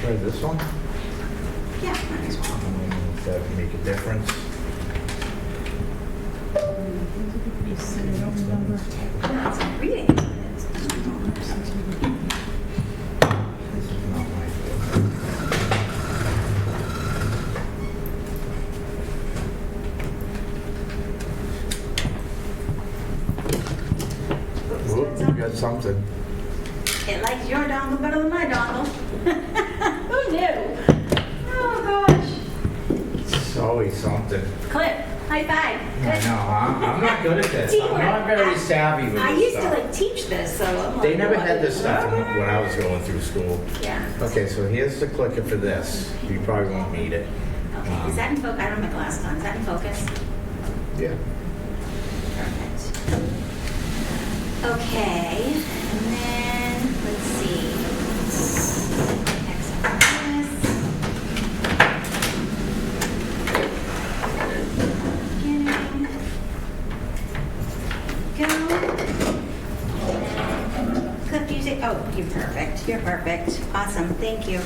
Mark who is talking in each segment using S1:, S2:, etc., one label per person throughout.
S1: Try this one?
S2: Yeah, might as well.
S1: Mm, If that can make a difference.
S2: That's a reading. It's $100.
S1: This is not my book. Whoop, you got something.
S2: It likes your dongle better than my dongle. Who knew? Oh, gosh.
S1: It's always something.
S2: Clip, high five.
S1: I know, I'm, I'm not good at this. I'm not very savvy with this
S2: I used to
S1: stuff.
S2: like teach this, so I'm like.
S1: They never had
S2: what?
S1: this stuff when when I was going through school.
S2: Yeah.
S1: Okay, so here's the clicker for this. You probably won't need it.
S2: Okay, is that in focus? I don't have my glasses on. Is that in focus?
S1: Yeah.
S2: Perfect. Okay, and then, let's see. Next on this. Beginning. Go. Clip music, oh, you're perfect, you're perfect. Awesome, thank you.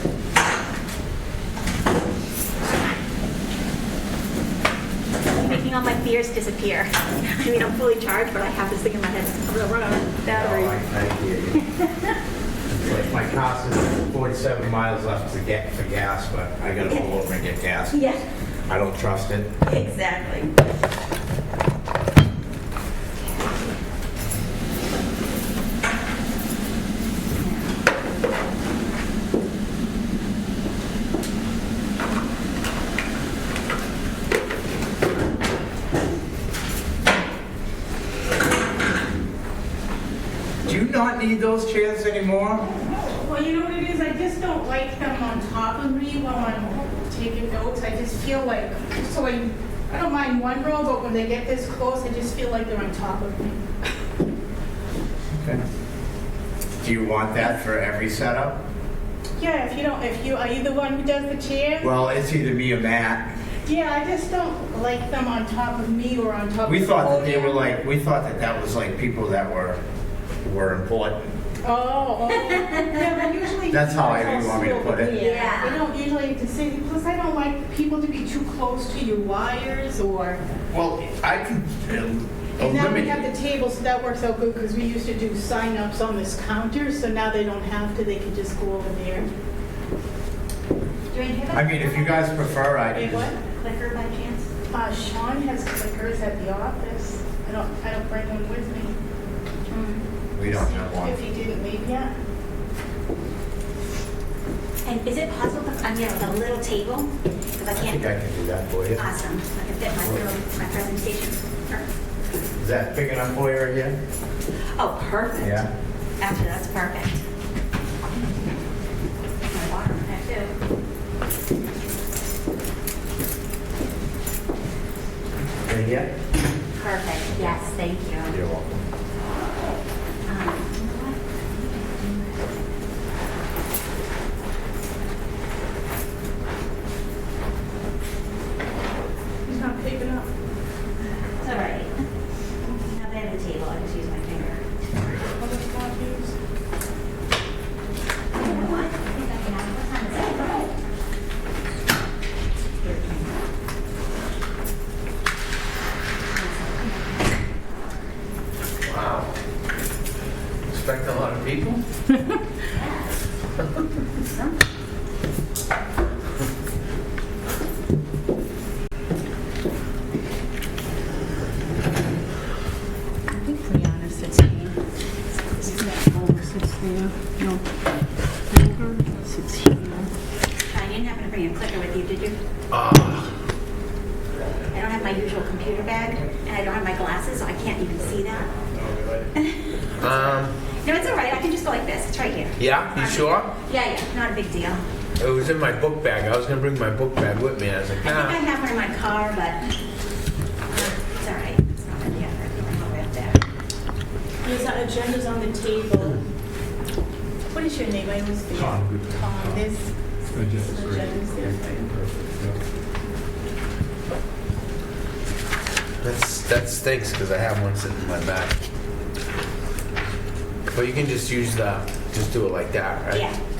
S2: Making all my fears disappear. I mean, I'm fully charged, but I have this thing in my head, I'm gonna run out of battery.
S1: No, I I hear you. It's Like my cost is 47 miles left to get for gas, but I gotta pull over and get gas.
S2: Yeah.
S1: I don't trust it.
S2: Exactly.
S1: Do you not need those chairs anymore?
S3: Well, you know what it is, I just don't like them on top of me while I'm taking notes, I just feel like, so I, I don't mind one row, but when they get this close, I just feel like they're on top of me.
S1: Okay. Do you want that for every setup?
S3: Yeah, if you don't, if you, are you the one who does the chair?
S1: Well, it's either me or Matt.
S3: Yeah, I just don't like them on top of me or on top of.
S1: We
S3: the
S1: thought that they were
S3: podium.
S1: like, we thought that that was like people that were, were important.
S3: Oh, oh. Yeah, but usually.
S1: That's how I-
S3: that's
S1: you want me to
S3: slow,
S1: put it.
S3: Yeah,
S2: Yeah.
S3: I don't usually to say, plus I don't like people to be too close to your wires or.
S1: Well, I can uh,
S3: And now we have
S1: eliminate.
S3: the table, so that works out good because we used to do sign-ups on this counter, so now they don't have to, they can just go over there.
S2: Do I have a-
S1: I mean, if you guys prefer, I
S3: Hey,
S1: can
S3: what?
S1: just.
S2: Clicker by chance?
S3: Uh, Sean has clickers at the office. I don't, I don't bring them with me.
S1: We don't have one.
S3: If he didn't leave yet.
S2: And is it possible, if I'm getting a little table? Because I
S1: I think
S2: can't,
S1: I can do that for you.
S2: awesome, I can fit my little, my presentation. Perfect.
S1: Is that big enough for you again?
S2: Oh, perfect.
S1: Yeah.
S2: Actually, that's perfect. My water, I do.
S1: Right here?
S2: Perfect, yes, thank you.
S1: You're welcome.
S2: Um,
S3: He's not picking up.
S2: It's all right. Now they have the table, I just use my finger.
S3: All the copies.
S2: You know what? I think I can have- what time is it?
S1: Wow. Expect a lot of people?
S4: Brianna sixteen. Over sixteen, no. Over sixteen.
S2: I didn't happen to bring a clicker with you, did you?
S1: Uh,
S2: I don't have my usual computer bag, and I don't have my glasses, so I can't even see that.
S5: Um,
S2: No, it's all right, I can just go like this, it's right here.
S5: yeah, you sure?
S2: Yeah, yeah, not a big deal.
S5: It was in my book bag. I was gonna bring my book bag with me. I was like,
S2: I think I
S5: nah.
S2: have one in my car, but uh, it's all right. It's not gonna be a hard one, I'll wrap that.
S3: His agenda's on the table. What is your name? I always forget.
S6: Tom.
S3: Tom, this
S6: Agenda's great.
S3: agenda's there for you.
S5: That's that stinks because I have one sitting in my back. But you can just use the, just do it like that, right?
S2: Yeah,